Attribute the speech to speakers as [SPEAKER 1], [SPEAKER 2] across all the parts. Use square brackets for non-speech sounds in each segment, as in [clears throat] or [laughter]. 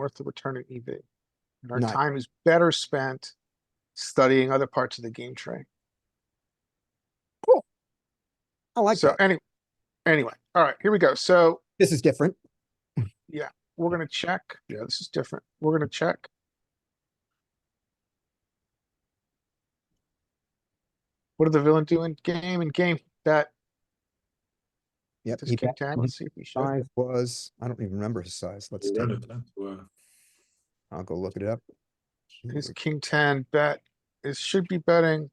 [SPEAKER 1] worth the return in EV. And our
[SPEAKER 2] Nice.
[SPEAKER 1] time is better spent studying other parts of the game tree.
[SPEAKER 2] I like
[SPEAKER 1] So
[SPEAKER 2] that.
[SPEAKER 1] anyway, anyway, all right, here we go. So
[SPEAKER 2] This is different.
[SPEAKER 1] we're gonna check. Yeah, this is different. We're gonna check. What did the villain do in game? In game, that
[SPEAKER 2] Yep.
[SPEAKER 1] just
[SPEAKER 2] he
[SPEAKER 1] came
[SPEAKER 2] E bet.
[SPEAKER 1] down.
[SPEAKER 2] His
[SPEAKER 1] Let's see if we should.
[SPEAKER 2] Size was, I don't even remember his size. Let's, take-
[SPEAKER 3] eh,
[SPEAKER 2] I'll go look it up.
[SPEAKER 1] His king ten bet is should be betting.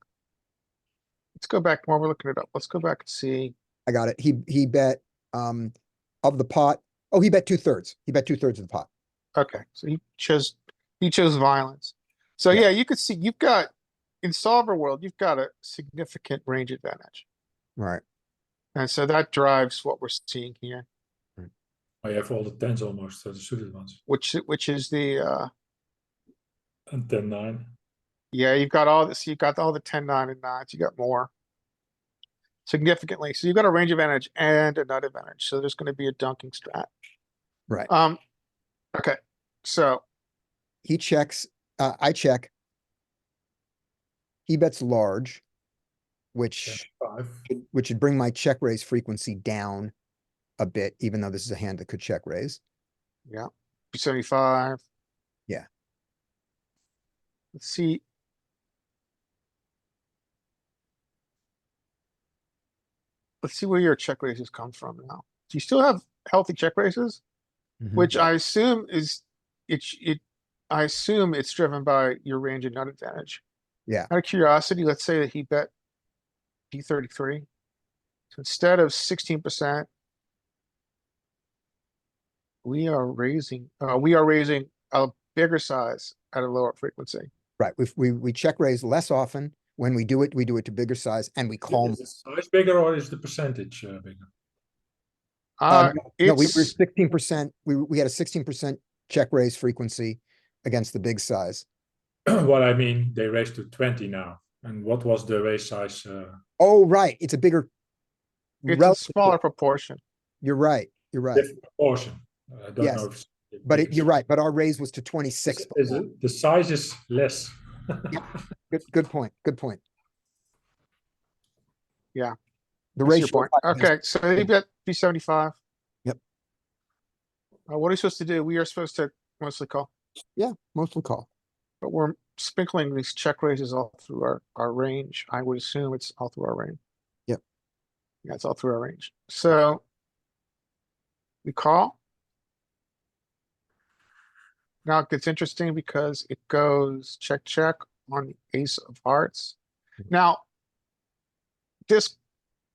[SPEAKER 1] Let's go back while we're looking it up. Let's go back and see.
[SPEAKER 2] I got it. He, he bet, um, of the pot. Oh, he bet two thirds. He bet two thirds of the pot.
[SPEAKER 1] Okay, so he chose, he chose violence. So
[SPEAKER 2] Yeah.
[SPEAKER 1] yeah, you could see, you've got, in solver world, you've got a significant range advantage.
[SPEAKER 2] Right.
[SPEAKER 1] And so that drives what we're seeing here,
[SPEAKER 3] I have all the tens almost, uh, the suited ones.
[SPEAKER 1] which, which is the, uh,
[SPEAKER 3] And ten nine.
[SPEAKER 1] yeah, you've got all this, you've got all the ten, nine and nines, you got more. Significantly, so you've got a range advantage and a nut advantage, so there's gonna be a dunking strat.
[SPEAKER 2] Right.
[SPEAKER 1] Um, okay, so,
[SPEAKER 2] He checks, uh, I check. He bets large, which,
[SPEAKER 3] Five.
[SPEAKER 2] which would bring my check raise frequency down a bit, even though this is a hand that could check raise.
[SPEAKER 1] yeah, seventy-five.
[SPEAKER 2] Yeah.
[SPEAKER 1] Let's see, let's see where your check raises come from now. Do you still have healthy check raises?
[SPEAKER 2] Mhm.
[SPEAKER 1] Which I assume is, it's, it, I assume it's driven by your range and nut advantage.
[SPEAKER 2] Yeah.
[SPEAKER 1] Out of curiosity, let's say that he bet D thirty-three. So instead of sixteen percent, we are raising, uh, we are raising a bigger size at a lower frequency.
[SPEAKER 2] Right, we, we, we check raise less often. When we do it, we do it to bigger size and we call.
[SPEAKER 3] Is the size bigger or is the percentage uh, bigger? [clears throat]
[SPEAKER 1] Uh,
[SPEAKER 2] Um, No, we were
[SPEAKER 1] it's-
[SPEAKER 2] sixteen percent, we, we had a sixteen percent check raise frequency against the big size.
[SPEAKER 3] What I mean, they raised to twenty now. And what was the raise size? Uh,
[SPEAKER 2] Oh, right, it's a bigger.
[SPEAKER 1] it's a
[SPEAKER 2] relative-
[SPEAKER 1] smaller proportion.
[SPEAKER 2] You're right, you're right,
[SPEAKER 3] different proportion. I don't
[SPEAKER 2] Yes,
[SPEAKER 3] know. if- if
[SPEAKER 2] but
[SPEAKER 3] it
[SPEAKER 2] it,
[SPEAKER 3] is-
[SPEAKER 2] you're right, but our raise was to twenty-six.
[SPEAKER 3] is- is it- The size is less.
[SPEAKER 2] Good, good point, good point.
[SPEAKER 1] Yeah,
[SPEAKER 2] The
[SPEAKER 1] That's your
[SPEAKER 2] ratio.
[SPEAKER 1] point. Okay, so you bet B seventy-five.
[SPEAKER 2] Yep.
[SPEAKER 1] Uh, what are you supposed to do? We are supposed to mostly call,
[SPEAKER 2] Mostly call,
[SPEAKER 1] but we're sprinkling these check raises all through our, our range. I would assume it's all through our range.
[SPEAKER 2] Yep.
[SPEAKER 1] Yeah, it's all through our range. So we call. Now it gets interesting because it goes check, check on the ace of hearts. Now, this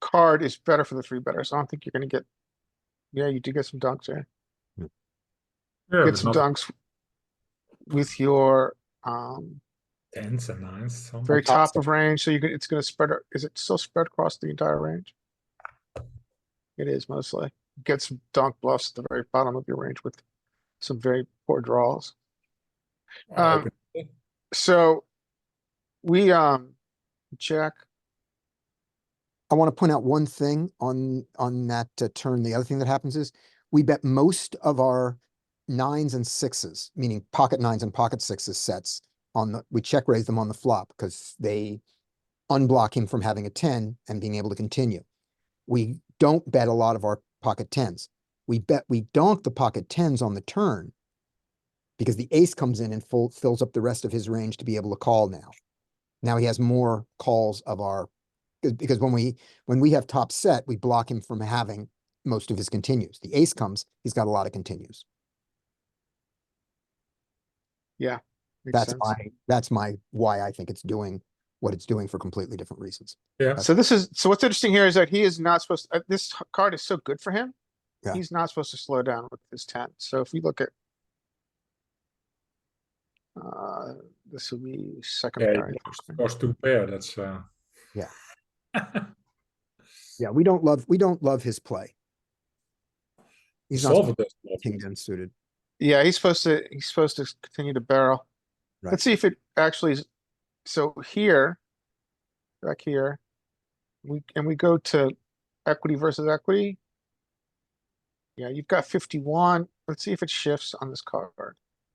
[SPEAKER 1] card is better for the three betters. I don't think you're gonna get, yeah, you do get some dunks there.
[SPEAKER 3] Yeah,
[SPEAKER 1] Get
[SPEAKER 3] but
[SPEAKER 1] some
[SPEAKER 3] not
[SPEAKER 1] dunks with your, um,
[SPEAKER 3] Tens and nines. some-
[SPEAKER 1] very
[SPEAKER 2] top
[SPEAKER 1] top of range, so you can, it's gonna spread, a- is it still spread across the entire range? It is mostly. Get some dunk bluffs at the very bottom of your range with some very poor draws.
[SPEAKER 3] I
[SPEAKER 1] Um,
[SPEAKER 3] reckon.
[SPEAKER 1] So we, um, check,
[SPEAKER 2] I want to point out one thing on, on that uh, turn. The other thing that happens is we bet most of our nines and sixes, meaning pocket nines and pocket sixes sets on the, we check raise them on the flop because they unblock him from having a 10 and being able to continue. We don't bet a lot of our pocket tens. We bet, we donk the pocket tens on the turn because the ace comes in and full, fills up the rest of his range to be able to call now. Now he has more calls of our because- because when we when we have top set, we block him from having most of his continues. The ace comes, he's got a lot of continues.
[SPEAKER 1] makes
[SPEAKER 2] That's
[SPEAKER 1] sense.
[SPEAKER 2] my that's my why I think it's doing what it's doing for completely different reasons.
[SPEAKER 3] Yeah,
[SPEAKER 1] So this is, so what's interesting here is that he is not supposed, uh, this h- card is so good for him.
[SPEAKER 2] Yeah.
[SPEAKER 1] He's not supposed to slow down with his ten, so if we look at. Uh, this will be second
[SPEAKER 3] yeah,
[SPEAKER 1] pair. I
[SPEAKER 3] it
[SPEAKER 1] think.
[SPEAKER 3] was two pair, that's, uh.
[SPEAKER 2] Yeah.
[SPEAKER 3] [laughs]
[SPEAKER 2] Yeah, we don't love we don't love his play. He's not
[SPEAKER 3] Solver
[SPEAKER 2] supposed
[SPEAKER 3] does
[SPEAKER 2] to be king ten suited.
[SPEAKER 1] Yeah, he's supposed to, he's supposed to continue to barrel.
[SPEAKER 2] Right.
[SPEAKER 1] Let's see if it actually is, so here. Back here. We, and we go to equity versus equity. Yeah, you've got fifty-one. Let's see if it shifts on this card.